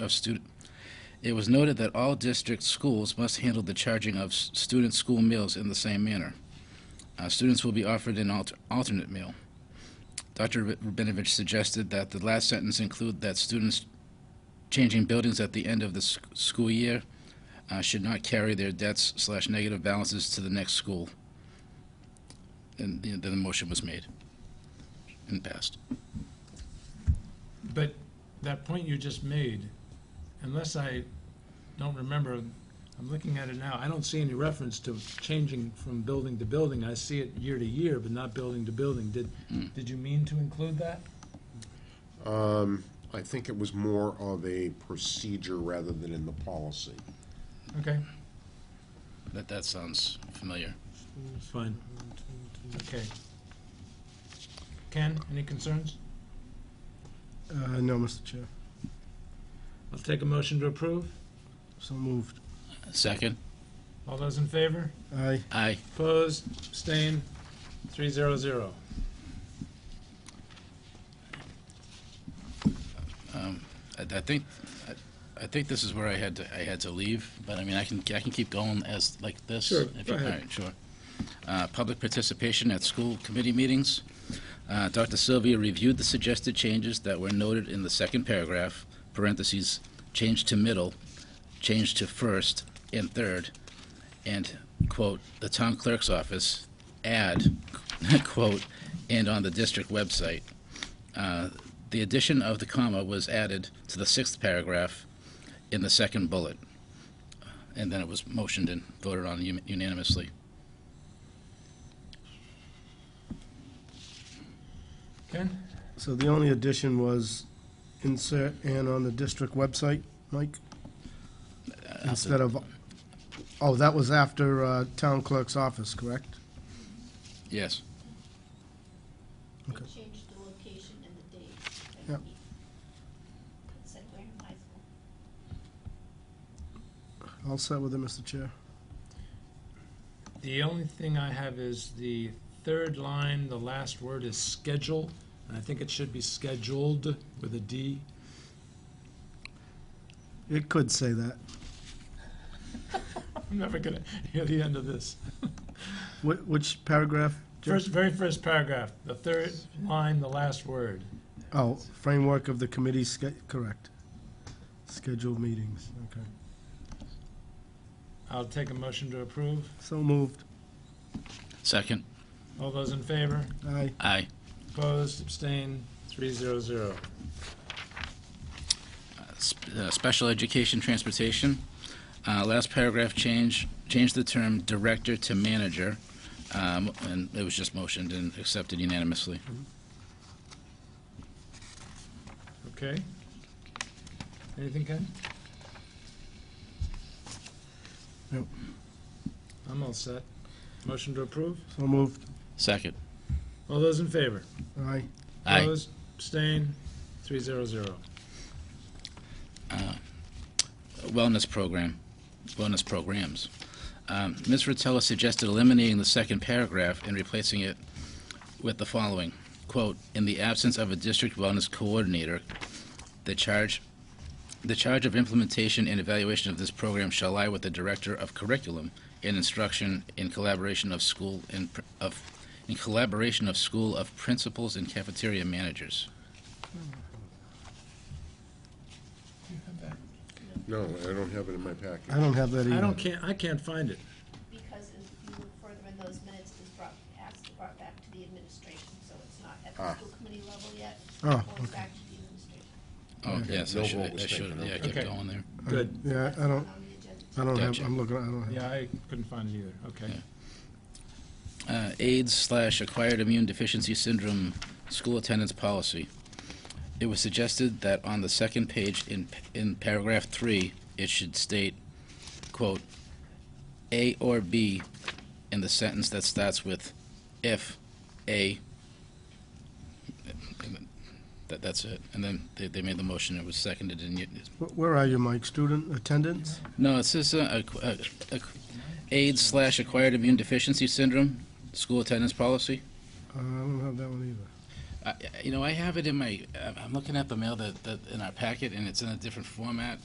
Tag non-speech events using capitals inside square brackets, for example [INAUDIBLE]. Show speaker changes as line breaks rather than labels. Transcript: of student. It was noted that all district schools must handle the charging of s- student school meals in the same manner. Uh, Students will be offered an alter- alternate meal. Dr. Rab- Rabinovich suggested that the last sentence include that students changing buildings at the end of the s- school year uh, should not carry their debts slash negative balances to the next school. And the- then the motion was made and passed.
But that point you just made, unless I don't remember, I'm looking at it now, I don't see any reference to changing from building to building. I see it year to year, but not building to building. Did, did you mean to include that?
I think it was more of a procedure rather than in the policy.
Okay,
That, that sounds familiar.
it's fine. Okay. Ken, any concerns?
Uh, no, Mr. Chair.
I'll take a motion to approve.
So moved.
Second?
All those in favor?
Aye.
Aye.
Opposed, abstained, three zero zero.
I, I think, I, I think this is where I had to, I had to leave, but I mean, I can, I can keep going as, like this.
Sure,
if
go
you-
ahead.
All right, sure. Uh, public participation at school committee meetings. Uh, Dr. Sylvia reviewed the suggested changes that were noted in the second paragraph, parentheses, change to middle, change to first and third, and, quote, the town clerk's office, add, [LAUGHS] quote, and on the district website. Uh, The addition of the comma was added to the sixth paragraph in the second bullet, and then it was motioned and voted on uni- unanimously.
Ken?
So the only addition was insert and on the district website, Mike? Instead of, oh, that was after uh, town clerk's office, correct?
Yes.
Okay.
Change the location and the date.
Yep.
It's at Wareham High School.
All set with it, Mr. Chair.
The only thing I have is the third line, the last word is schedule, and I think it should be scheduled with a D.
It could say that.
I'm never gonna [LAUGHS] hear the end of this.
Wh- Which paragraph? Jeff?
First, very first paragraph, the third line, the last word.
Oh, framework of the committee, sch- correct. Scheduled meetings, okay.
I'll take a motion to approve.
So moved.
Second?
All those in favor?
Aye.
Aye.
Opposed, abstained, three zero zero.
Sp- uh, Special education transportation. Uh, Last paragraph change, change the term director to manager, um, and it was just motioned and accepted unanimously.
Okay. Anything, Ken?
Nope.
I'm all set. Motion to approve?
So moved.
Second?
All those in favor?
Aye.
Aye.
Opposed, abstained, three zero zero.
Wellness program, wellness programs. Um, Ms. Rotella suggested eliminating the second paragraph and replacing it with the following, quote, "In the absence of a district wellness coordinator, the charge, the charge of implementation and evaluation of this program shall lie with the director of curriculum and instruction in collaboration of school and, pr- of, in collaboration of school of principals and cafeteria managers."
No, I don't have it in my packet.
I don't have that either.
I don't, can't, I can't find it.
Because if you look further in those minutes, it was brought, asked, brought back to the administration, so it's not at
Ah.
the school committee level yet. It's
Oh,
going back to the administration.
Oh, yes, I
Mm-hmm. No
should,
vote was
I should,
taken,
yeah, I
okay.
kept
Okay.
going there.
Good.
Yeah, I don't,
On the agenda.
Oh. I don't have,
Gotcha.
I'm looking, I don't have.
Yeah, I couldn't find it either. Okay.
uh, AIDS slash acquired immune deficiency syndrome school attendance policy. It was suggested that on the second page in, in paragraph three, it should state, quote, A or B in the sentence that starts with if A. and then That, that's it. And then they, they made the motion. It was seconded and yet,
Wh- Where are you, Mike? Student attendance?
no, it says uh, ac- uh, ac- AIDS slash acquired immune deficiency syndrome, school attendance policy.
Uh, I don't have that one either.
I- You know, I have it in my, I'm looking at the mail that, that, in our packet, and it's in a different format.